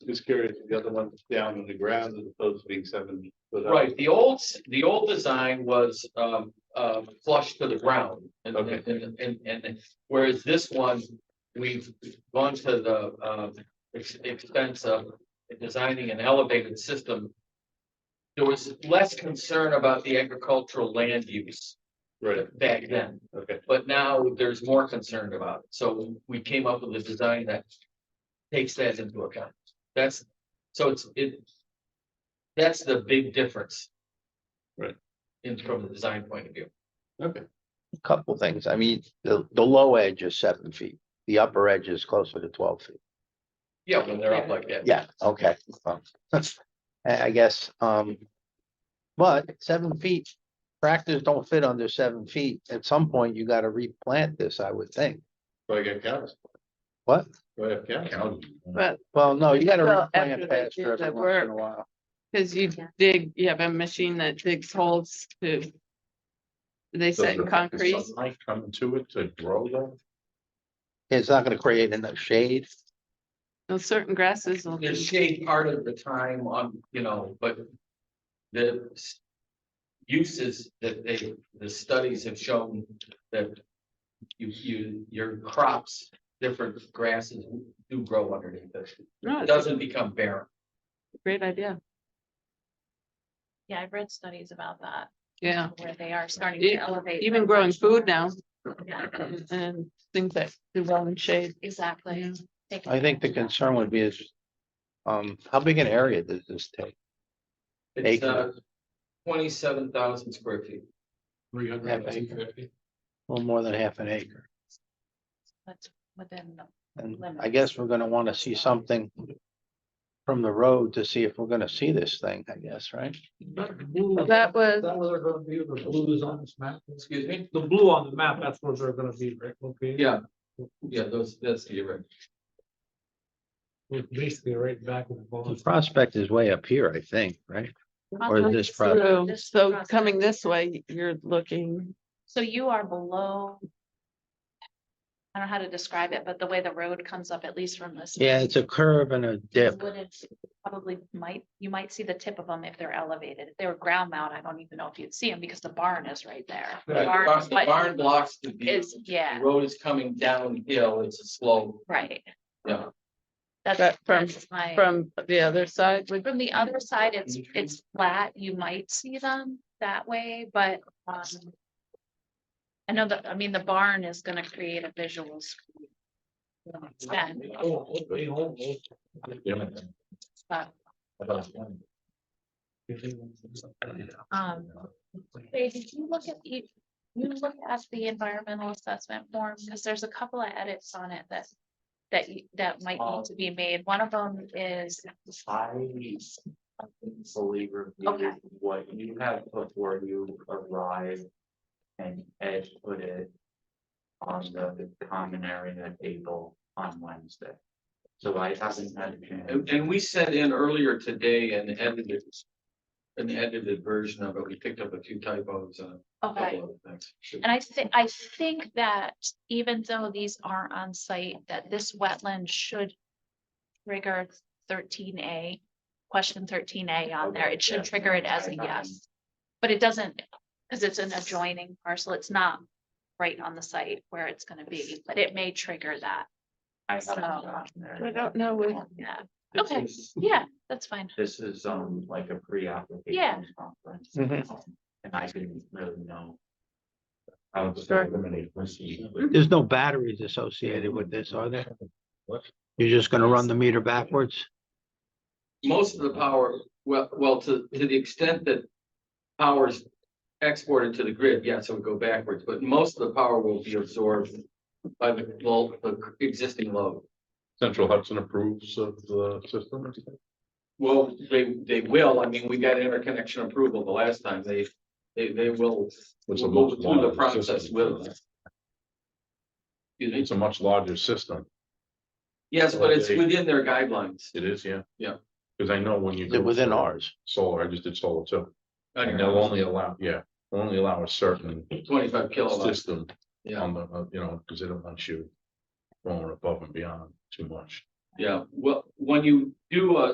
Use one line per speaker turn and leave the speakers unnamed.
Just curious, if the other one's down on the ground as opposed to being seven. foot up.
Right, the old, s- the old design was um uh flush to the ground. And
Okay.
and and and whereas this one, we've gone to the um ex- expense of designing an elevated system. There was less concern about the agricultural land use
Right,
back then,
okay,
but now there's more concern about it. So we came up with a design that takes that into account. That's, so it's, it, that's the big difference.
Right.
In from the design point of view.
okay,
couple things. I mean, the, the low edge is seven feet. The upper edge is closer to twelve feet.
Yeah, when they're up like that.
Yeah, okay. well, I, I guess, um. But seven feet, tractors don't fit under seven feet. At some point, you gotta replant this, I would think.
so I got cows,
What?
do I have cows?
But,
Well, no, you gotta
Well,
replant
after they
pasture
did the
every once in a while.
cause you dig, you have a machine that digs holes to. They set in concrete,
Might come to it to grow them.
It's not gonna create enough shade.
Now, certain grasses will,
There's
do-
shade part of the time on, you know, but the s- uses that they, the studies have shown that you, you, your crops, different grasses do grow underneath this.
no,
It
it's a
doesn't become barren.
great idea,
Yeah, I've read studies about that,
yeah,
where they are starting
E-
to elevate.
even growing food now.
Yeah,
And things that do well in shade.
Exactly.
Yeah.
Taking
I think the
advantage
concern would be is. Um, how big an area does this take?
It's uh
Acre.
twenty-seven thousand square feet.
Three
and
fifty.
A little more than half an acre.
of That's within, the-
And I
Limits.
guess we're gonna wanna see something. From the road to see if we're gonna see this thing, I guess, right?
That was,
That where they're gonna be, the blue is on this map,
Excuse me?
the blue on the map, that's where they're gonna be, right, okay?
Yeah. Yeah, those, that's the right.
Basically right back of the ball.
The prospect is way up here, I think, right? Or is this property?
through,
This
so
process.
coming this way, you're looking,
so you are below. I don't know how to describe it, but the way the road comes up, at least from this.
Yeah, it's a curve and a
you
dip.
Wouldn't, probably might, you might see the tip of them if they're elevated, if they were ground mount, I don't even know if you'd see them, because the barn is right there. The
The
barn
barn-
is
the
what
barn blocks the view.
Is, yeah,
The road is coming downhill. It's a slope.
right.
Yeah.
That's.
But from-
that's my-
from the other side, would
From the other side, it's,
Mhm.
it's flat, you might see them that way, but, um. I know that, I mean, the barn is gonna create a visual. screen to an extent,
Oh,
but, Um, Ray, did you look at, you, you look at the environmental assessment form, because there's a couple of edits on it that. That you, that might
Um,
need to be made, one of them is,
I fully
Okay.
reviewed what you had before you arrived. And Ed put it on the common area table on Wednesday. So I haven't had. And, and we sent in earlier today and edited. An edited version of it. We picked up a few typos and a
okay.
couple of things.
And I think, I think that even though these aren't on site, that this wetland should trigger thirteen A, question thirteen A on there.
Okay,
It should
yes.
trigger it as a
I- I-
yes. But it doesn't, because it's an adjoining parcel, it's not right on the site where it's gonna be, but it may trigger that.
I haven't
So-
gotten there
I
yet.
don't know, would
Yeah,
This
Okay.
is-
yeah, that's fine.
This is um like a pre-application.
Yeah.
conference,
Mhm.
um, And I didn't really know. I was
Sure.
eliminated from seeing.
There's no batteries associated with this, are there? You're just gonna run the meter backwards?
most of the power, well, well, to, to the extent that power's exported to the grid, yes, it would go backwards, but most of the power will be absorbed by the, lo- the existing load.
Central Hudson approves of the system or something?
Well, they, they will, I mean, we got interconnection approval the last time, they, they, they will
It's a
go
much
through the
larger
process
system.
with us. Excuse me,
It's a much larger system.
yes, but it's within their guidelines.
It is, yeah.
Yeah.
Cause I know when you.
Is
go
it within
for
ours?
Solar, I just did solar too. And they'll only allow, yeah, they'll only allow a certain
Twenty-five kilowatts,
system
yeah.
on the, uh, you know, because they don't want you going above and beyond too much.
Yeah, well, when you do a